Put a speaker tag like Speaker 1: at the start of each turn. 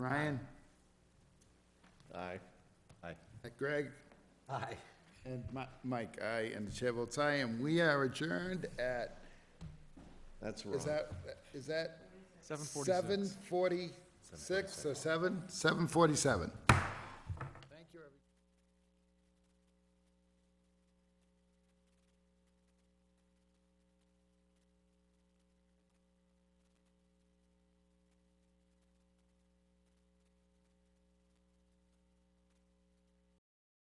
Speaker 1: Ryan,
Speaker 2: Aye. Aye.
Speaker 1: Greg,
Speaker 3: Aye.
Speaker 1: and Mi- Mike, aye, and the chair votes aye, and we are adjourned at, is
Speaker 2: That's wrong.
Speaker 1: that, is that?
Speaker 4: Seven
Speaker 1: Seven forty-six or seven? Seven forty-seven.